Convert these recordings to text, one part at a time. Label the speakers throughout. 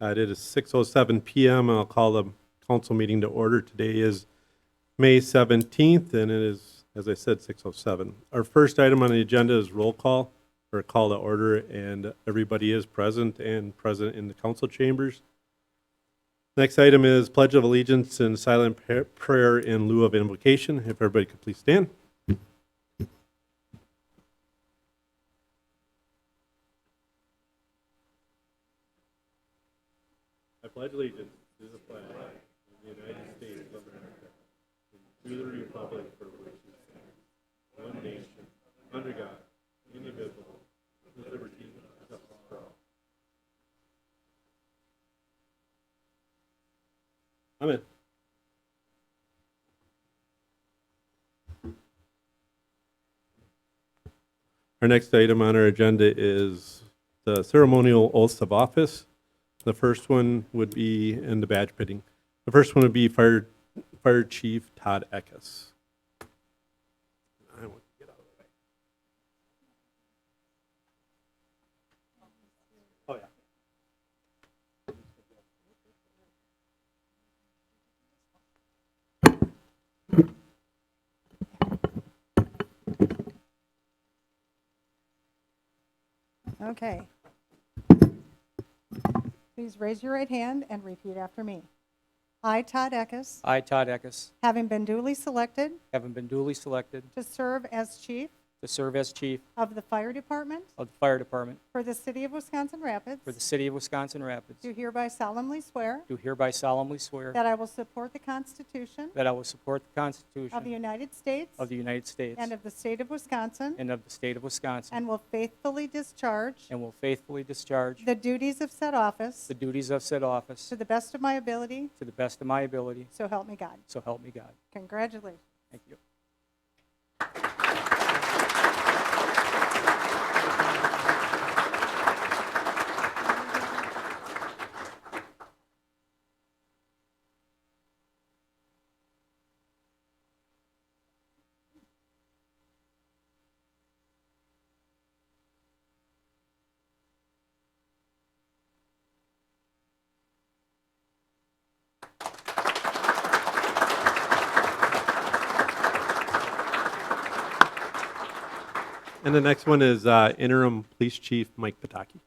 Speaker 1: Uh, It is 6:07 PM, and I'll call the council meeting to order. Today is May 17th, and it is, as I said, 6:07. Our first item on the agenda is roll call, or call to order, and everybody is present and present in the council chambers. Next item is pledge of allegiance and silent pra- prayer in lieu of invocation. If everybody could please stand. I pledge allegiance to the flag of the United States of America and to the republic for which it stands, one nation, under God, indivisible, with liberty and justice for all. I'm in. Our next item on our agenda is the ceremonial oaths of office. The first one would be in the badge pitting. The first one would be Fire, Fire Chief Todd Eckes. I want to get out of the way. Oh, yeah.
Speaker 2: Okay. Please raise your right hand and repeat after me. I, Todd Eckes,
Speaker 3: I, Todd Eckes,
Speaker 2: having been duly selected
Speaker 3: having been duly selected
Speaker 2: to serve as chief
Speaker 3: to serve as chief
Speaker 2: of the fire department
Speaker 3: of the fire department
Speaker 2: for the city of Wisconsin Rapids,
Speaker 3: for the city of Wisconsin Rapids,
Speaker 2: do hereby solemnly swear
Speaker 3: do hereby solemnly swear
Speaker 2: that I will support the Constitution
Speaker 3: that I will support the
Speaker 2: of the
Speaker 3: Constitution
Speaker 2: United States
Speaker 3: of the United States
Speaker 2: and of the state of Wisconsin,
Speaker 3: and of the state of Wisconsin,
Speaker 2: and will faithfully discharge
Speaker 3: and will faithfully discharge
Speaker 2: the duties of said office
Speaker 3: the duties of said office
Speaker 2: to the best of my ability,
Speaker 3: to the best of my ability,
Speaker 2: so help me God.
Speaker 3: so help me God.
Speaker 2: Congratulations.
Speaker 3: Thank you.
Speaker 1: And the next one is uh, interim police chief Mike Pataki.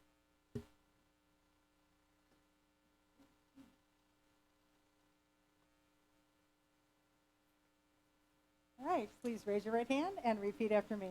Speaker 2: All right, please raise your right hand and repeat after me.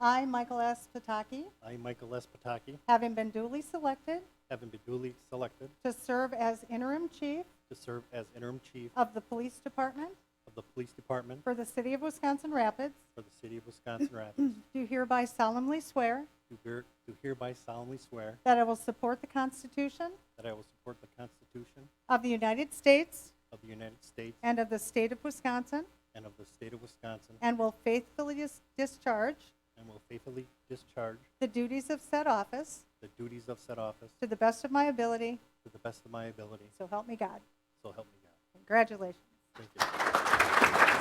Speaker 2: I, Michael S. Pataki,
Speaker 4: I, Michael S. Pataki,
Speaker 2: having been duly selected
Speaker 4: having been duly selected
Speaker 2: to serve as interim chief
Speaker 4: to serve as interim chief
Speaker 2: of the police department
Speaker 4: of the police department
Speaker 2: for the city of Wisconsin Rapids,
Speaker 4: for the city of Wisconsin Rapids,
Speaker 2: do hereby solemnly swear
Speaker 4: do her- do hereby solemnly swear
Speaker 2: that I will support the Constitution
Speaker 4: that I will support the Constitution
Speaker 2: of the United States
Speaker 4: of the United States
Speaker 2: and of the state of Wisconsin,
Speaker 4: and of the state of Wisconsin,
Speaker 2: and will faithfully dis- discharge
Speaker 4: and will faithfully discharge
Speaker 2: the duties of said office
Speaker 4: the duties of said office
Speaker 2: to the best of my ability,
Speaker 4: to the best of my ability,
Speaker 2: so help me God.
Speaker 4: so help me God.
Speaker 2: Congratulations.
Speaker 4: Thank you.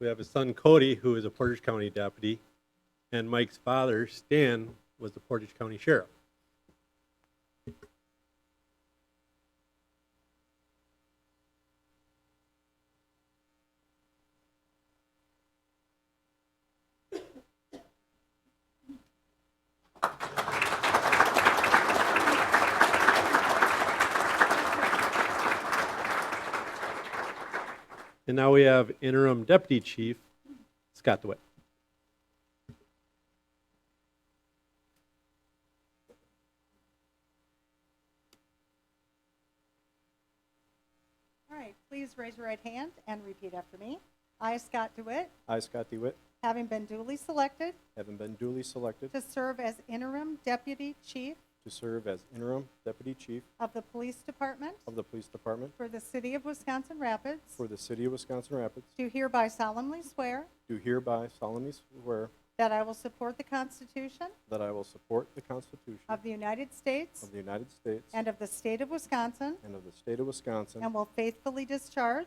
Speaker 1: We have his son Cody, who is a Portage County deputy, and Mike's father, Stan, was the Portage County sheriff. And now we have interim deputy chief Scott DeWitt.
Speaker 2: All right, please raise your right hand and repeat after me. I, Scott DeWitt,
Speaker 5: I, Scott DeWitt,
Speaker 2: having been duly selected
Speaker 5: having been duly selected
Speaker 2: to serve as interim deputy chief
Speaker 5: to serve as interim deputy chief
Speaker 2: of the police department
Speaker 5: of the police department
Speaker 2: for the city of Wisconsin Rapids,
Speaker 5: for the city of Wisconsin Rapids,
Speaker 2: do hereby solemnly swear
Speaker 5: do hereby solemnly swear
Speaker 2: that I will support the Constitution
Speaker 5: that I will support the Constitution
Speaker 2: of the United States
Speaker 5: of the United States
Speaker 2: and of the state of Wisconsin,
Speaker 5: and of the state of Wisconsin,
Speaker 2: and will faithfully discharge